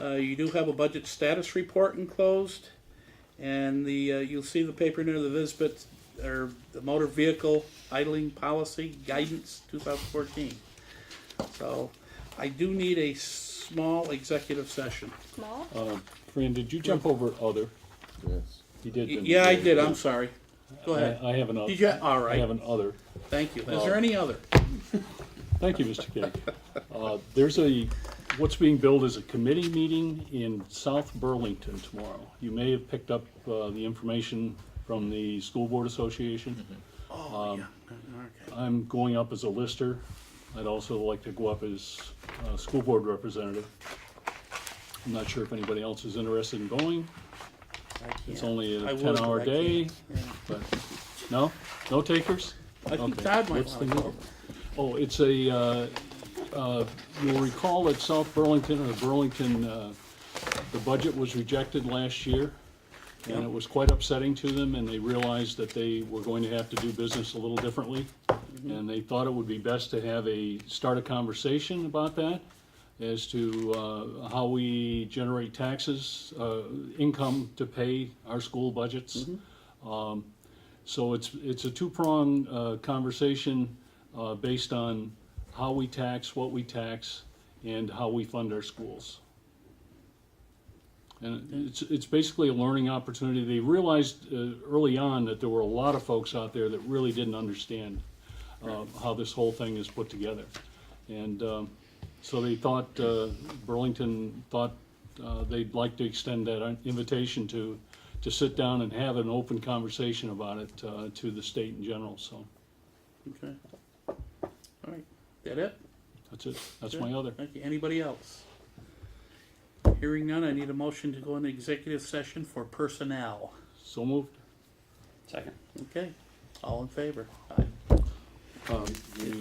Uh, you do have a budget status report enclosed, and the, uh, you'll see the paper near the Visbit, or the motor vehicle idling policy guidance two thousand fourteen. So, I do need a small executive session. Small? Um, Fran, did you jump over other? Yes. You did. Y- didn't Yeah, I you? did, I'm sorry. Go ahead. I I have an other. Did you, all I have right, an other. thank you. Is there any other? Thank you, Mr. King. Uh, There's a, what's being billed as a committee meeting in South Burlington tomorrow. You may have picked up uh, the information from the School Board Association. Oh, yeah, okay. I'm going up as a lister. I'd also like to go up as uh school board representative. I'm not sure if anybody else is interested in going. I It's can't. only I a would, ten-hour but I can't. day, but, no? No takers? I think Okay, Todd might what's the wanna go. move? Oh, it's a, uh, uh, you'll recall that South Burlington, or Burlington, uh, the budget was rejected last year, and Yeah. it was quite upsetting to them, and they realized that they were going to have to do business a little differently. Mm-hmm. And they thought it would be best to have a, start a conversation about that, as to uh, how we generate taxes, uh, income to pay our school budgets. Mm-hmm. So it's, it's a two-prong uh, conversation uh, based on how we tax, what we tax, and how we fund our schools. And it's, it's basically a learning opportunity. They realized uh, early on that there were a lot of folks out there that really didn't understand uh, how this whole thing is put together. And um, so they thought, uh, Burlington thought uh, they'd like to extend that invitation to, to sit down and have an open conversation about it uh, to the state in general, so Okay. All right, that it? that's it. That's my other. Thank you. Anybody else? Hearing none, I need a motion to go into executive session for personnel. So moved. Second. Okay, all in favor? Aye.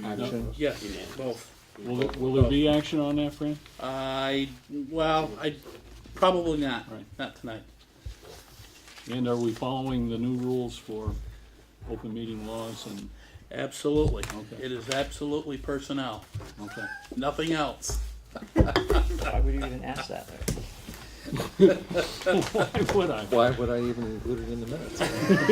Action. Yes, both. Will, there- will there be action on that, Fran? I, well, I, probably not, Right. not tonight. And are we following the new rules for open meeting laws and, Absolutely. Okay. It is absolutely personnel, okay. nothing else. Why would you even ask that? Why would I? Why would I even include it in the minutes?